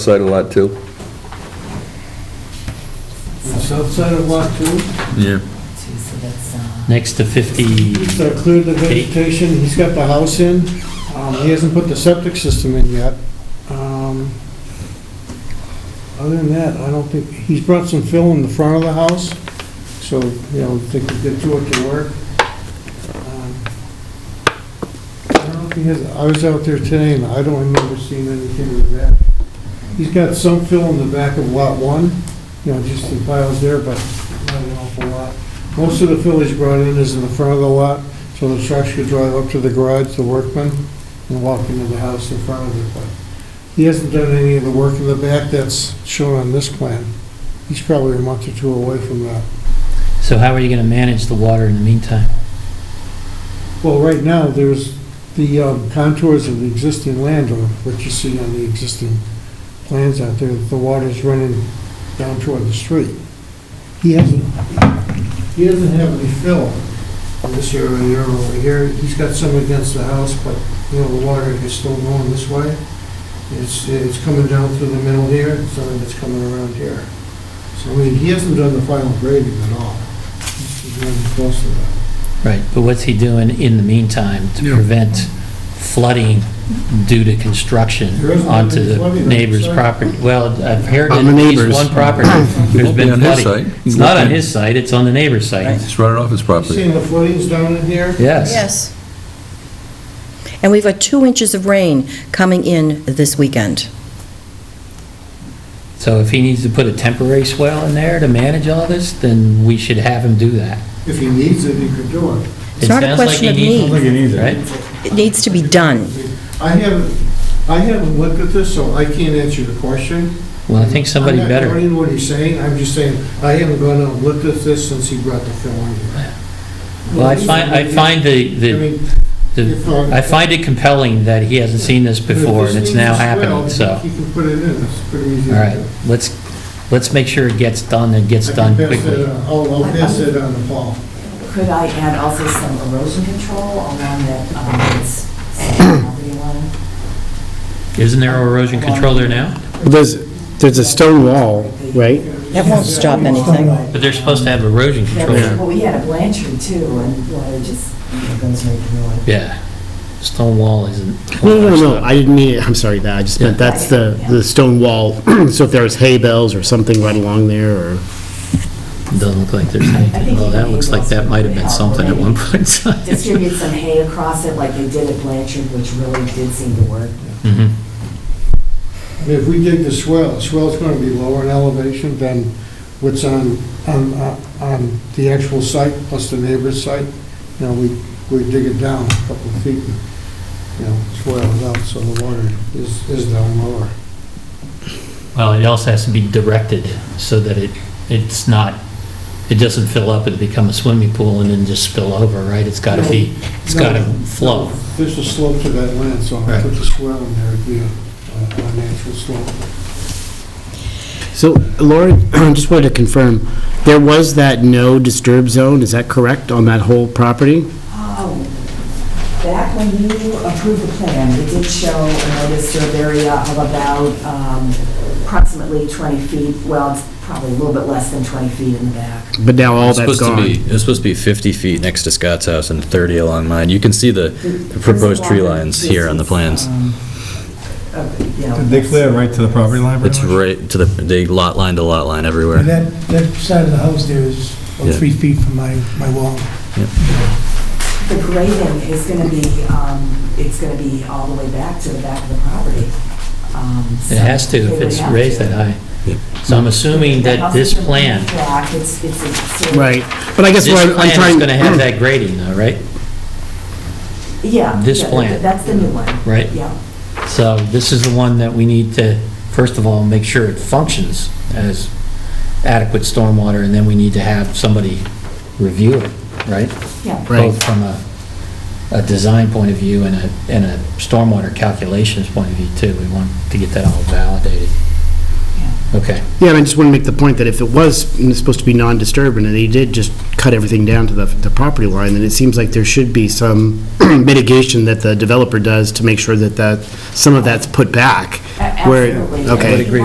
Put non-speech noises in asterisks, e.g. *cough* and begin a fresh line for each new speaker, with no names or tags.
Side of lot two?
The South side of lot two,
Yeah.
Two, so that's, uh,
Next to 50,
so uh, cleared the vegetation, he's got the house in, um, he hasn't put the septic system in yet. Um, Other than that, I don't think, he's brought some fill in the front of the house, so, you know, I think the two of can work. Um, I don't know if he has, I was out there today and I don't remember seeing anything like that. He's got some fill in the back of lot one, you know, just the piles there, but not an awful lot. Most of the fill he's brought in is in the front of the lot, so the trucks could drive up to the garage, the workmen, and walk into the house in front of it. But He hasn't done any of the work in the back that's shown on this plan. He's probably a month or two away from that.
so how are you going to manage the water in the meantime?
Well, right now, there's the um, contours of the existing land, or what you see on the existing plans out there, the water's running down toward the street. He hasn't, he doesn't have any fill in this area here or over here. He's got some against the house, but, you know, the water is still going this way. It's, it's coming down through the middle here, and some of it's coming around here. So, I mean, he hasn't done the final grading at all. He's he's running close to that.
Right, but what's he doing in the meantime to prevent flooding due to construction
There isn't
onto
any flooding
the
on
neighbor's
the side.
property? Well, I've heard
On
that
the
at least
neighbor's.
one property, there's
won't be
been
on his
flooding.
side.
It's
He
not
won't
on
be-
his site, it's on the neighbor's site.
He's running off his
Seeing
property.
the footings down in here?
Yes.
Yes. And we've got two inches of rain coming in this weekend.
So if he needs to put a temporary swell in there to manage all this, then we should have him do that.
If he needs it, he could do it.
It
It's not a
sounds like he
question of
needs-
need. I don't
think he needs it.
Right?
It needs to be done.
I haven't, I haven't looked at this, so I can't answer the question.
Well, I think somebody
I'm not
better,
doubting what he's saying, I'm just saying, I haven't gone out and looked at this since he brought the film in here.
well, I find, I find the,
I
the
mean,
the
if, uh,
I find it compelling that he hasn't seen this before,
if
and
this
it's now
needs to swell,
happening, so,
He can put it in, it's pretty easy.
all
to
right,
do.
let's, let's make sure it gets done and gets
I can
done
pass that
quickly.
on. I'll, I'll pass it on to Paul.
could I add also some erosion control along that, um, it's second property line?
Isn't there erosion control there now?
There's, there's a stone wall, right?
That won't stop anything.
But they're supposed to have erosion
That
control.
was- Well, we had a Blanchard too, and water just, you know, goes right through it.
Yeah, stone wall isn't.
No, no, no, I didn't mean, it. I'm sorry, that, I just meant, that's the, the stone wall, *clears throat* so if there was hay bales or something right along there, or,
Doesn't look like there's
I
anything,
think
well, that looks like that might have been something at one point. *laughs*
Distribute some hay across it like they did at Blanchard, which really did seem to work.
Mhm.
I mean, If we dig the swell, the swell's going to be lower in elevation than what's on, on, uh, on the actual site plus the neighbor's site. You know, we, we dig it down a couple of feet, and, you know, swell it out, so the water is, is down lower.
Well, it also has to be directed so that it, it's not, it doesn't fill up and become a swimming pool and then just spill over, right? It's gotta be, it's gotta flow.
There's a slope to that land, so if I put the swell in there, it'd be a, a a natural slope.
so, Laura, *clears throat* I just wanted to confirm, there was that no disturb zone, is that correct, on that whole property?
Oh, back when you approved the plan, it did show a notice of area of about um, approximately 20 feet, well, it's probably a little bit less than 20 feet in the back.
But now all
It's
that's
supposed to be,
gone.
it's supposed to be 50 feet next to Scott's house and 30 along mine. You can see the
The
proposed tree lines here on the plans.
Did uh,
Did they clear right to the property line? pretty
It's
much?
right to the, they lot line to lot line
And
everywhere.
that, that side of the house there is about
Yeah.
three feet from my, my wall.
The grading is going to be, um, it's going to be all the way back to the back of the property. Um, so
It has to
they
if
would
it's
have
raised
to.
that high. So I'm assuming
The
that
house
this
is gonna be
plan,
flat, It's, it's a sort of-
Right, but I guess
this
what I'm-
plan
I'm
is
trying. Mm.
going to
*clears throat*
have that grading though, right?
Yeah.
this
yeah,
plan.
That's the new one.
Right.
Yeah.
So this is the one that we need to, first of all, make sure it functions as adequate stormwater, and then we need to have somebody review it, right?
Yeah.
Right.
Both from a, a design point of view and a, and a stormwater calculations point of view too. We want to get that all validated.
Yeah.
Okay.
Yeah, and I just want to make the point that if it was supposed to be non-disturbing, and they did just cut everything down to the, the property line, then it seems like there should be some *clears throat* mitigation that the developer does to make sure that that, some of that's put back.
A-
where-
Absolutely.
Okay.
I would agree